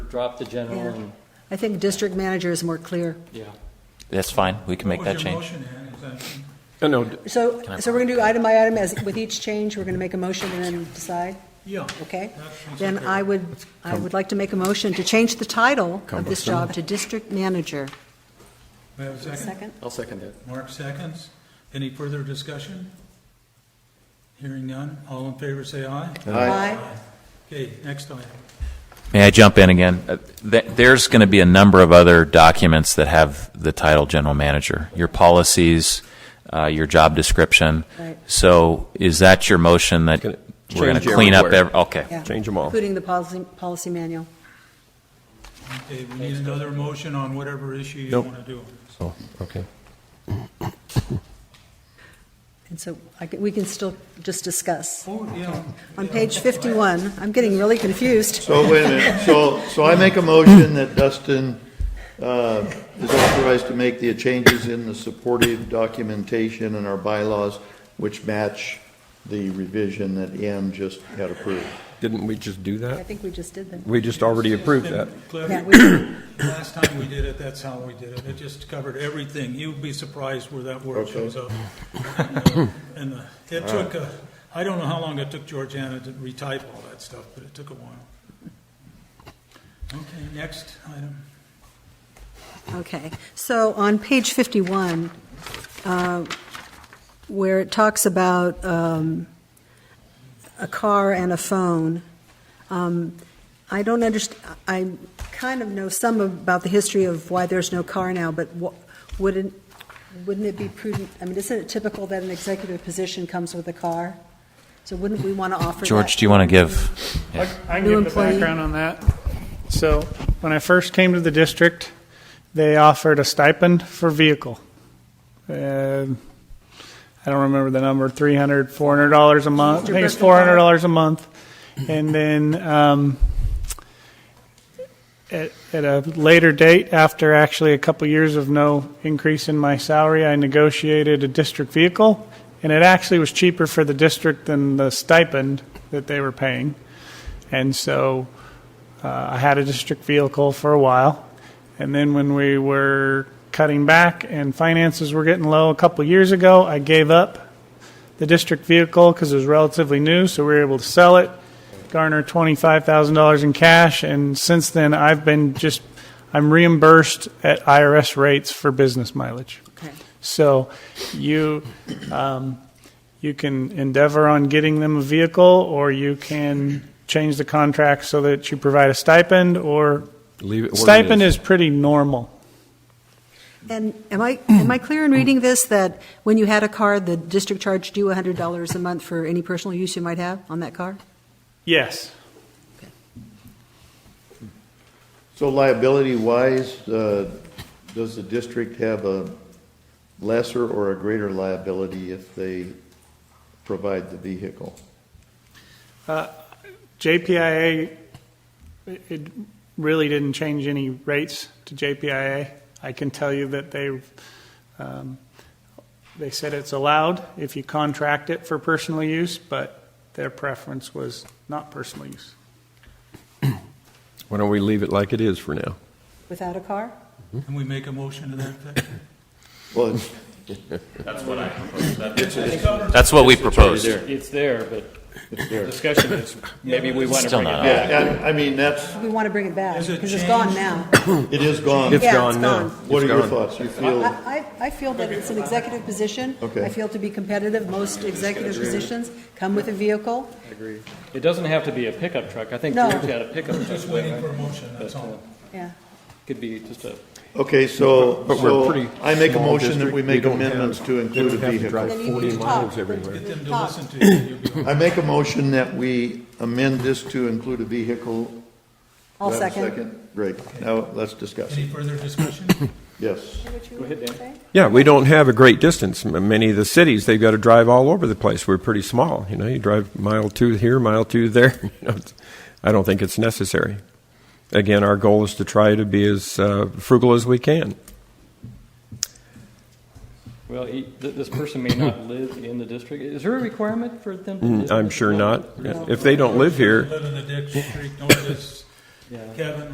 drop the general Yeah. and, I think district manager is more clear. yeah. That's fine, we can make that What was change. your motion, Ann, exactly? No, no, d- So, Can I- so we're gonna do item by item as, with each change, we're gonna make a motion and then decide, Yeah. okay? That sounds Then okay. I would, I would like to make a motion to change the title of this job to district manager. We have a second? Second? I'll second it. Mark seconds. Any further discussion? Hearing none. All in favor, say aye. Aye. Okay, next item. May I jump in again? Uh, th- There's going to be a number of other documents that have the title general manager, your policies, uh, your job description. Right. So is that your motion that Gonna we're going change to clean up? everywhere. ev- Okay. Yeah. Change 'em all. Including the policy, policy manual. Okay, we need another motion on whatever issue you Nope. want to do. Oh, okay. And so I can, we can still just discuss. Oh, yeah. On page 51, I'm getting really confused. So wait a minute, so, so I make a motion that Dustin uh, is authorized to make the changes in the supportive documentation and our bylaws which match the revision that Ann just had approved. Didn't we just do I that? think we just did that. We just already approved that. Cliff, Yeah, we- Last time we did it, that's how we did it. It just covered everything. You'd be surprised where that word Okay. shows up. And uh, it took, uh, I don't know how long it took Georgiana to retype all that stuff, but it took a while. Okay, next item. Okay, so on page 51, uh, where it talks about um, a car and a phone, um, I don't underst, I kind of know some about the history of why there's no car now, but wha- wouldn't, wouldn't it be prudent, I mean, isn't it typical that an executive position comes with a car? So wouldn't we want to offer that? George, do you want to give? I I can New give the employee. background on that. So when I first came to the district, they offered a stipend for vehicle. Um, I don't remember the number, 300, $400 a month. I think it's $400 a month. And then um, at at a later date, after actually a couple years of no increase in my salary, I negotiated a district vehicle. And it actually was cheaper for the district than the stipend that they were paying. And so uh, I had a district vehicle for a while. And then when we were cutting back and finances were getting low a couple years ago, I gave up the district vehicle because it was relatively new. So we were able to sell it, garner $25,000 in cash. And since then, I've been just, I'm reimbursed at IRS rates for business mileage. Okay. So you, um, you can endeavor on getting them a vehicle, or you can change the contract so that you provide a stipend, or Leave it where it stipend is pretty normal. And am I, am I clear in reading this that when you had a car, the district charged you $100 a month for any personal use you might have on that car? Yes. So liability-wise, uh, does the district have a lesser or a greater liability if they provide the vehicle? JPIA, it it really didn't change any rates to JPIA. I can tell you that they, um, they said it's allowed if you contract it for personal use, but their preference was not personal use. Why don't we leave it like it is for now? Without a car? Can we make a motion to that effect? Well, it's- That's what we proposed. It's there, but the discussion is, maybe we want to Still bring it not. back. yeah, I I mean, that's, We want to bring it back Is it because it's changed? gone now. it is gone. It's Yeah, it's gone now. gone. What are It's your gone. thoughts? You feel, I, I I feel that it's an executive position. Okay. I feel to be competitive, most executive positions come with a vehicle. It doesn't have to be a pickup truck. I think No. George had a pickup truck. uh, Just waiting for a motion, that's all. Yeah. Could be just a, okay, so, But we're a pretty so I make a small motion that district. we make don't have- amendments to they include a don't have to drive vehicle. Then you need 40 to miles talk. everywhere. Get them to Talk. listen to you. You'll be all right. I make a motion that we amend this to include a vehicle. Do I I'll have a second. Great, now let's discuss. Any further discussion? Yes. go ahead, Dan. Yeah, we don't have a great distance. M- Many of the cities, they've got to drive all over the place. We're pretty small, you know, you drive mile two here, mile two there. You know, it's- I don't think it's necessary. Again, our goal is to try to be as uh, frugal as we can. Well, he- th- this person may not live in the district. Is there a requirement for them? to Mm, live I'm in the sure district? not. If they don't live here, Live in the district, notice, Yeah. Kevin,